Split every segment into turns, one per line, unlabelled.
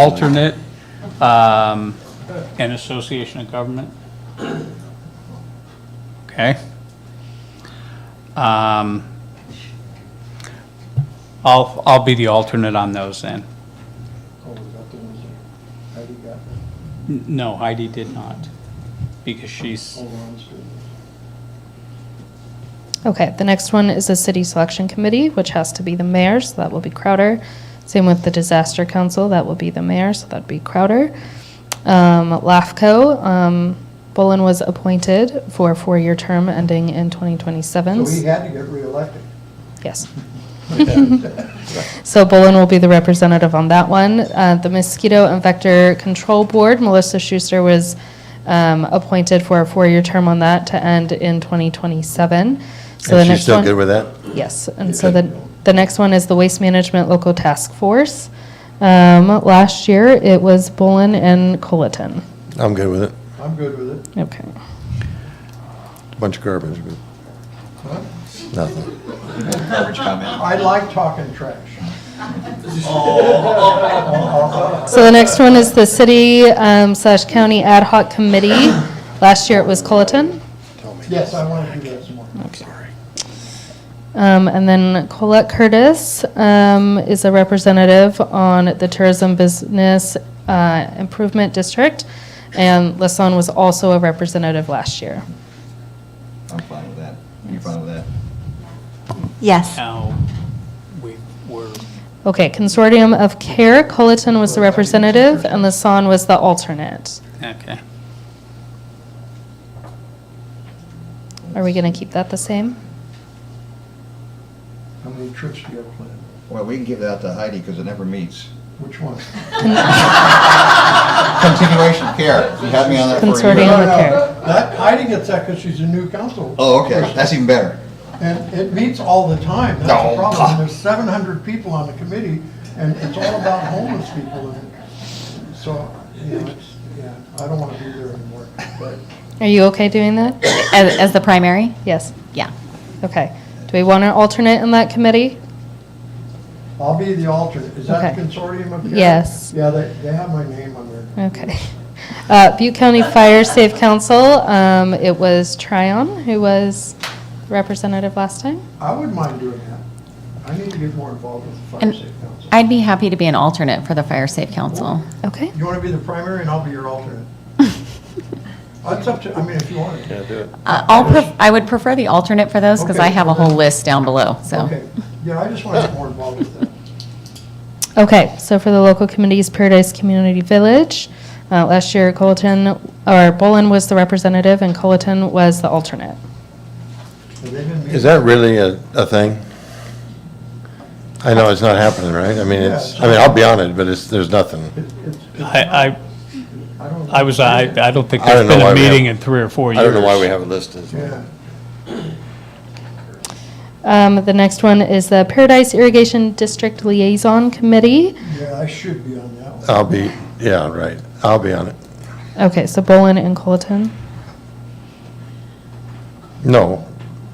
alternate, um, and association of government. Okay. Um, I'll, I'll be the alternate on those then.
Oh, we got the ones that Heidi got,
N- No, Heidi did not, because she's,
all the ones doing
Okay, the next one is the city selection committee, which has to be the mayor, so that will be Crowder. Same with the disaster council, that will be the mayor, so that'd be Crowder. Um, LAFCO, um, Bullen was appointed for a four-year term ending in
this.
2027.
So he had to get reelected.
Yes. So Bolin will be the representative on that one. Uh, The Mosquito and Vector Control Board, Melissa Schuster was um, appointed for a four-year term on that to end in 2027. So the
And she's
next
still
one,
good with that?
Yes, and so the, the next one is the Waste Management Local Task Force. Um, Last year, it was Bolin and Colleton.
I'm good with it.
I'm good with it.
Okay.
Bunch of garbage,
Huh?
but nothing.
I like talking trash.
Oh.
So the next one is the City um, slash County Ad Hoc Committee. Last year, it was Colleton.
Yes, I want to do that some more.
Um, and then Colette Curtis um, is a representative on the Tourism Business uh, Improvement District, and Lasan was also a representative last year.
I'm fine with that. You're fine with that?
Yes.
now, we were,
Okay, Consortium of Care, Colleton was the representative, and Lasan was the alternate.
okay.
Are we going to keep that the same?
How many trips do you have planned?
Well, we can give that to Heidi because it never meets.
Which one?
Continuation of care. You had me on that for a
Consortium.
year.
No, no,
care.
That, Heidi gets that because she's a new council.
Oh, okay. That's even better.
And it meets all the time, that's the
No.
problem. There's seven hundred people on the committee, and it's all about homeless people. and So, you know, it's, yeah, I don't want to be there anymore, but
Are you okay doing that?
As, as the primary?
Yes.
Yeah.
Okay. Do we want an alternate in that committee?
I'll be the alternate. Is that the
Okay.
consortium up here?
Yes.
Yeah, they, they have my name on there.
Okay. Uh, Butte County Fire Safe Council, um, it was Tryon who was representative last time.
I would mind doing that. I need to get more involved with the fire
And
safe council.
I'd be happy to be an alternate for the Fire Safe Council.
Okay.
You want to be the primary, and I'll be your alternate. It's up to, I mean, if you want to.
Uh, I'll, pref- I would prefer the alternate for those because I
Okay.
have a whole list down below, so.
Okay, yeah, I just want to get more involved with that.
Okay, so for the local committees, Paradise Community Village, uh, last year Colleton, or Bolin was the representative and Colleton was the alternate.
Have they been
Is that really a, a thing? I know it's not happening, right? I mean, it's, I mean, I'll be on it, but it's, there's nothing.
meeting? It's- it's-
I, I,
I don't.
I was, I, I don't think
I don't
there's
know
been
why
a
we have-
meeting in three or four years.
I don't know why we have it listed.
Yeah.
Um, the next one is the Paradise Irrigation District Liaison Committee.
Yeah, I should be on that one.
I'll be, yeah, right. I'll be on it.
Okay, so Bolin and Colleton.
No.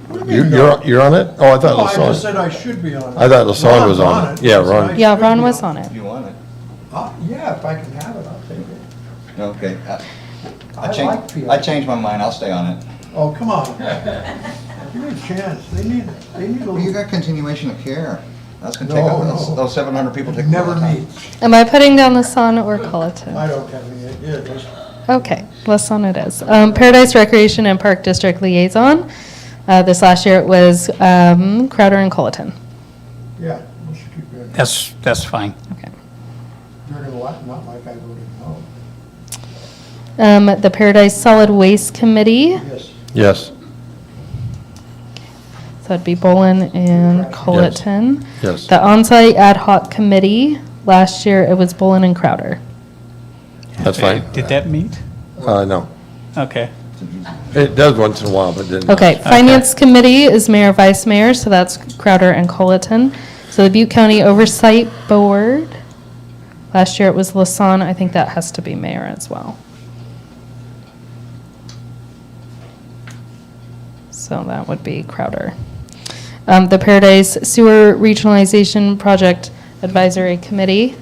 What do
Oh,
you
You,
mean,
you're, you're on it? Oh, I
No,
thought
I just
LaSalle.
said I should be on it.
I thought Lasalle
Ron's
was on it. Yeah,
so
Ron.
I
Yeah,
should
Ron
be
was on it.
You want it?
Uh, Yeah, if I can have it, I'll take it.
Okay. I-
I
I changed,
like PI.
I changed my mind. I'll stay on it.
Oh, come on. Give me a chance. They need, they need a
Well, you
little,
got continuation of care. That's gonna take, up-
No,
those
no.
those 700 people take. up all
never
the time.
meets.
Am I putting down Lasan or Colleton?
I don't have any idea. Just-
Okay, less on it is. Um, Paradise Recreation and Park District Liaison. Uh, this last year it was um, Crowder and Colleton.
Yeah, let's keep going.
That's, that's fine.
Okay.
You're gonna like, not like I voted no.
Um, the Paradise Solid Waste Committee.
Yes,
Yes,
So that'd be Bolin and Colleton.
yes.
The Onsite Ad Hoc Committee. Last year it was Bolin and Crowder.
That's fine.
Did that meet?
Uh, no.
Okay.
It does once in a while, but didn't.
Okay, Finance Committee is Mayor, Vice Mayor, so that's Crowder and Colleton. So the Butte County Oversight Board. Last year it was Lasan. I think that has to be Mayor as well. So that would be Crowder. Um, the Paradise Sewer Regionalization Project Advisory Committee.